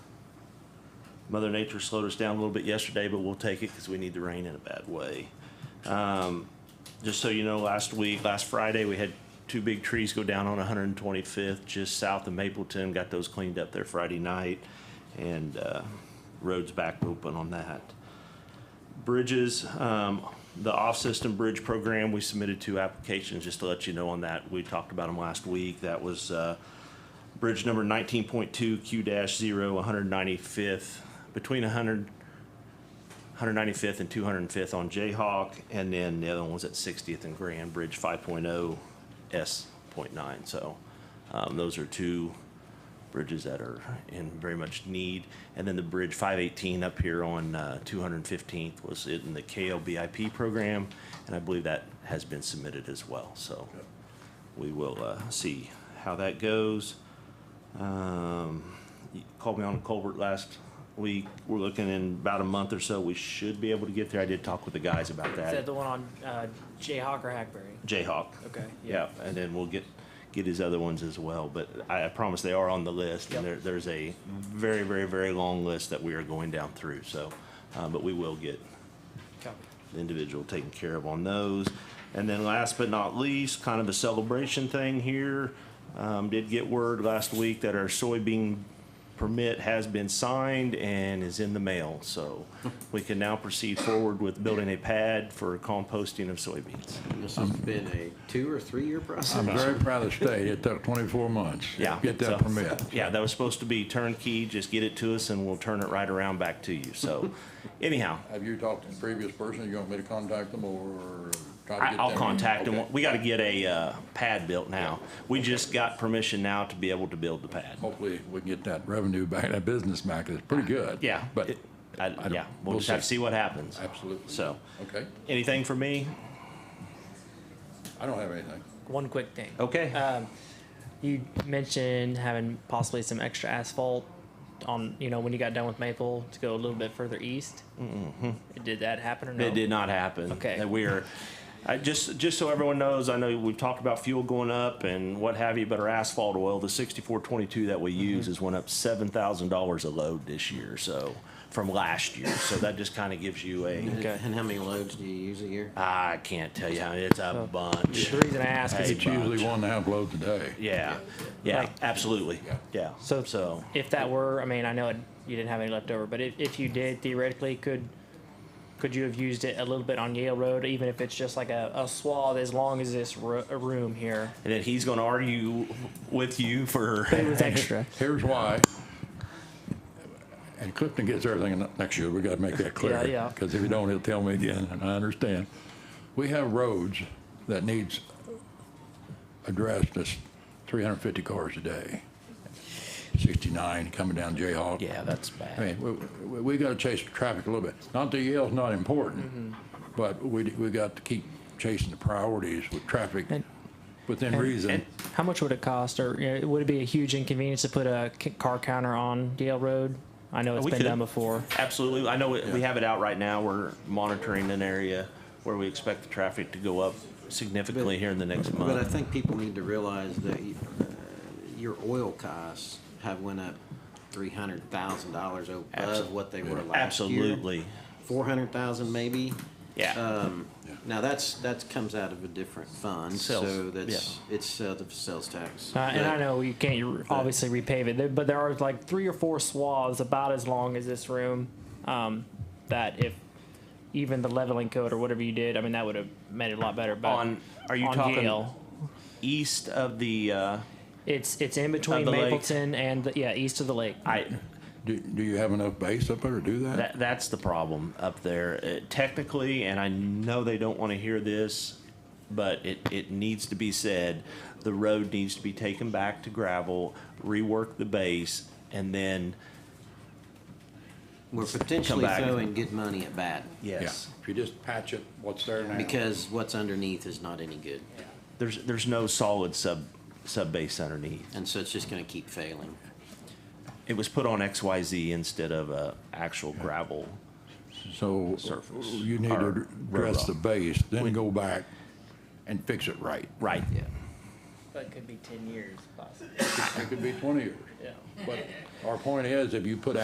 Mother Nature slowed us down a little bit yesterday, but we'll take it because we need the rain in a bad way. Um, just so you know, last week, last Friday, we had two big trees go down on 125th, just south of Mapleton. Got those cleaned up there Friday night, and uh, roads back open on that. Bridges, um, the off-system bridge program, we submitted two applications, just to let you know on that. We talked about them last week. That was uh, bridge number 19.2 Q-0, 195th, between 100, 195th and 205th on Jayhawk, and then the other one was at 60th and Grand Bridge 5.0 S.9. So um, those are two bridges that are in very much need. And then the Bridge 518 up here on uh, 215th was in the KLBIP program, and I believe that has been submitted as well. So we will uh, see how that goes. Um, you called me on a culvert last week. We're looking in about a month or so. We should be able to get there. I did talk with the guys about Is that that. the one on uh, Jayhawk or Hackberry? Jayhawk. Okay. Yeah, and then we'll get, get his other ones as well, but I, I promise they are on the list, and there, there's a very, very, very long list that we are going down through, so, uh, but we will get Copy. the individual taken care of on those. And then last but not least, kind of a celebration thing here, um, did get word last week that our soybean permit has been signed and is in the mail, so we can now proceed forward with building a pad for composting of soybeans. This has been a two or three-year process. I'm very proud of the state. It took 24 months. to Yeah. Get so- that permit. Yeah, that was supposed to be turnkey, just get it to us and we'll turn it right around back to you. So anyhow, Have you talked to the previous person? You want me to contact them or try to get I, them? I'll contact Okay. them. We gotta get a, uh, pad built now. We just got permission now to be able to build the pad. Hopefully, we can get that revenue back, that business back. It's pretty good. Yeah. But, it- I, don't- yeah, we'll we'll just have to see. see what happens. absolutely. So, Okay, anything for me? I don't have anything. One quick thing. Okay. Um, you mentioned having possibly some extra asphalt on, you know, when you got done with Maple to go a little bit further east. Mm-hmm. Did that happen or no? It did not happen. Okay. That we are, I just, just so everyone knows, I know we've talked about fuel going up and what have you, but our asphalt oil, the sixty-four twenty-two that we use Mm-hmm. has went up seven thousand dollars a load this year, so, from last year. So that just kind of gives you a, Okay. And how many loads do you use a year? I can't tell you how, it's a bunch. The reason I ask is It's usually one and a half loads a day. Yeah, yeah, absolutely. Yeah. Yeah, So- so, if that were, I mean, I know it, you didn't have any left over, but if, if you did theoretically, could could you have used it a little bit on Yale Road, even if it's just like a, a swath as long as this ro- room here? and then he's gonna argue with you for. It was extra. Here's why. And Clifton gets everything next year. We got to make that clear. Yeah, yeah. Because if you don't, he'll tell me again, and I understand. We have roads that needs addressed that's 350 cars a day. 69 coming down Jayhawk. Yeah, that's bad. I mean, we- we, we got to chase the traffic a little bit. Not that Yale's not Mm-hmm. important, but we, we got to keep chasing the priorities with traffic And- within reason. How much would it cost, or you know, would it be a huge inconvenience to put a c- car counter on Yale Road? I know it's Oh, we been could. done before. Absolutely. I know we we have it out right now. We're monitoring an area where we expect the traffic to go up significantly here in the next But I month. think people need to realize that you- uh, your oil costs have went up three hundred thousand dollars Absol- above what they were last year. Absolutely. Four hundred thousand maybe. Yeah. Um, Now, that's, that comes out of a different fund, Sales, so that's, it's out of sales tax. Uh, and I But- know you can't you obviously repave it, there- but there are like three or four swaths about as long as this room um, that if even the leveling code or whatever you did, I mean, that would have made it a lot better. But On, are you on talking Yale, east of the, uh, it's it's in between the lake? Mapleton and the, yeah, east of the lake. I, Do, do you have enough base up there to do that, that's the problem up there. Uh, Technically, and I know they don't want to hear this, but it, it needs to be said, the road needs to be taken back to gravel, rework the base, and then, We're potentially back. throwing good money at bad, Yeah, yes. if you just patch it, what's there now. because what's underneath is not any good, There's, there's no solid sub, sub base underneath. and so it's just gonna keep failing. It was put on XYZ instead of a actual gravel. So surface you need or to road address the base, then go back and fix it right. Right. Yeah. That could be ten years possibly. It could be 20 years. But our point is, if you put